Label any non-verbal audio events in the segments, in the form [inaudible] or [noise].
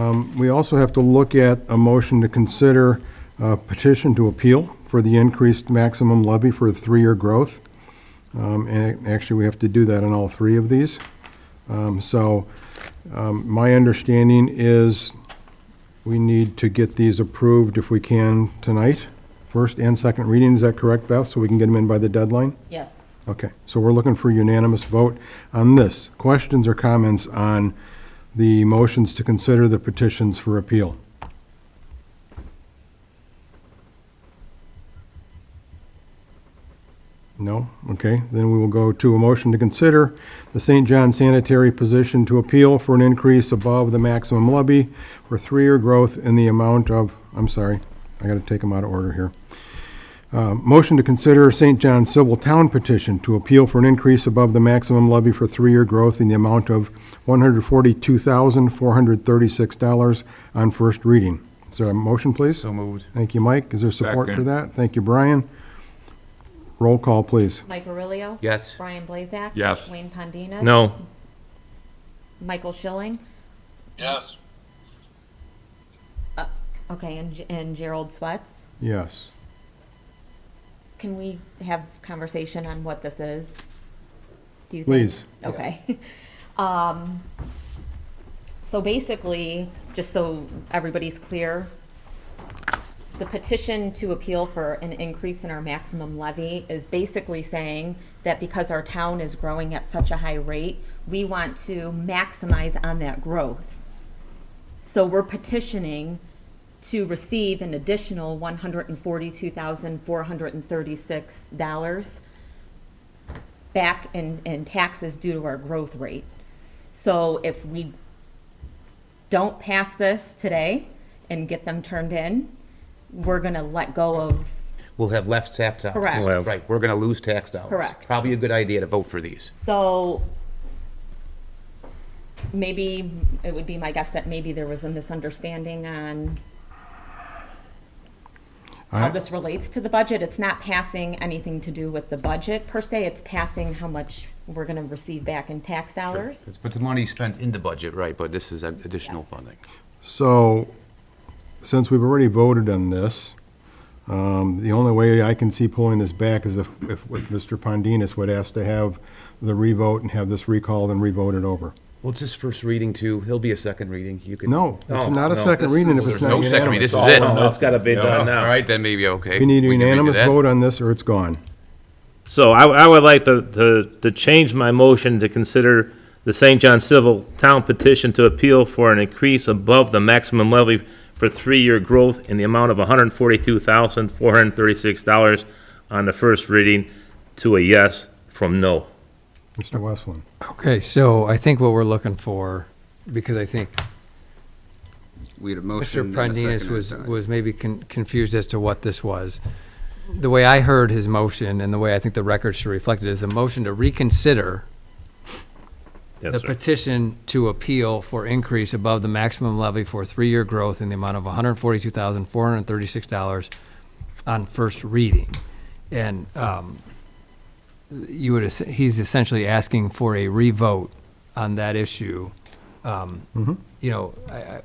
Um, We also have to look at a motion to consider uh, petition to appeal for the increased maximum levy for three-year growth. Um, And actually, we have to do that in all three of these. Um, So um, my understanding is we need to get these approved if we can tonight, first and second reading. Is that correct, Beth? So we can get them in by the deadline? Yes. Okay, so we're looking for unanimous vote on this. Questions or comments on the motions to consider the petitions for appeal? No? Okay, then we will go to a motion to consider the St. John sanitary position to appeal for an increase above the maximum levy for three-year growth in the amount of, I'm sorry, I gotta take them out of order here. Uh, Motion to consider St. John Civil Town petition to appeal for an increase above the maximum levy for three-year growth in the amount of $142,436 on first reading. Is there a motion, please? So moved. Thank you, Mike. Is there support for Second. that? Thank you, Brian. Roll call, please. Mike Aurelio. Yes. Brian Blazak. Yes. Wayne Pondinas. No. Michael Schilling. yes, Uh, Okay, and, and Gerald Swatz. Yes. Can we have conversation on what this is? Do you think? Please. Okay. [laughs] Um, so basically, just so everybody's clear, the petition to appeal for an increase in our maximum levy is basically saying that because our town is growing at such a high rate, we want to maximize on that growth. So we're petitioning to receive an additional one hundred and forty-two thousand, four hundred and thirty-six dollars back in, in taxes due to our growth rate. So if we don't pass this today and get them turned in, we're gonna let go of, We'll have left tax dollars. Correct. We'll have- Right, we're gonna lose tax dollars. Correct. Probably a good idea to vote for these. so maybe, it would be my guess that maybe there was a misunderstanding on how I- this relates to the budget. It's not passing anything to do with the budget per se, it's passing how much we're gonna receive back in tax dollars. But the money spent in the budget, right, but this is an additional funding. So, since we've already voted on this, um, the only way I can see pulling this back is if, if if Mr. Pondinas would ask to have the revote and have this recalled and revoted over. Well, it's just first reading too. He'll be a second reading. You can. No, it's No, not a no, second this reading if is- it's there's not No second reading. unanimous. This is it. No, it's gotta be All done now. right, then maybe, okay. We need a can redo unanimous that. vote on this or it's gone. So I, I would like to, to, to change my motion to consider the St. John Civil Town petition to appeal for an increase above the maximum levy for three-year growth in the amount of hundred and forty-two thousand, four hundred and thirty-six dollars on the first reading to a yes from no. Mr. Westland, Okay, so I think what we're looking for, because I think We had a Mr. motion and a Prandinas second. was, and a- was maybe con- confused as to what this was. The way I heard his motion and the way I think the record should reflect it is a motion to reconsider the Yes, sir. petition to appeal for increase above the maximum levy for three-year growth in the amount of $142,436 on first reading. And um, you would, es- he's essentially asking for a revote on that issue. Um, Mm-hmm. You know, I- I-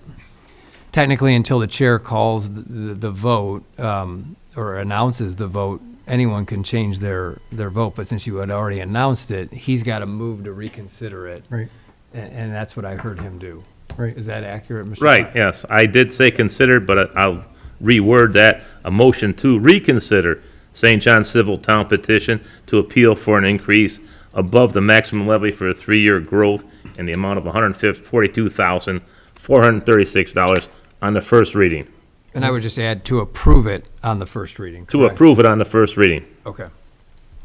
technically, until the chair calls the- the the vote um, or announces the vote, anyone can change their, their vote, but since you had already announced it, he's got to move to reconsider it. right, And, and that's what I heard him do. right. Is that accurate, Mr. Right, yes, I did say consider, but I'll reword that, a motion to reconsider St. John Civil Town petition to appeal for an increase above the maximum levy for a three-year growth in the amount of one hundred and forty-two thousand, four hundred and thirty-six dollars on the first reading, And I would just add to approve it on the first reading. to correct? approve it on the first reading. Okay.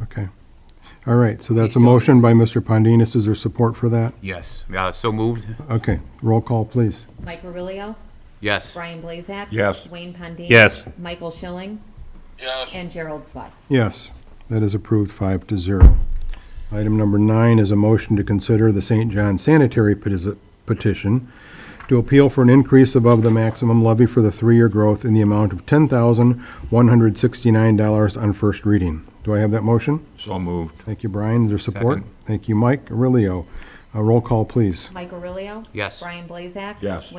Okay. All right, so that's a motion by Mr. Pondinas. Is there support for that? Yes, yeah, so moved, Okay, roll call, please. Mike Aurelio. yes. Brian Blazak. Yes. Wayne Pondinas. Yes. Michael Schilling yes. and Gerald Swatz. Yes, that is approved five to zero. Item number nine is a motion to consider the St. John sanitary peti- petition to appeal for an increase above the maximum levy for the three-year growth in the amount of $10,169 on first reading. Do I have that motion? So moved. Thank you, Brian. Is there support? Thank you, Mike. Aurelio, Uh, roll call, please. Mike Aurelio. Yes. Brian Blazak. Yes.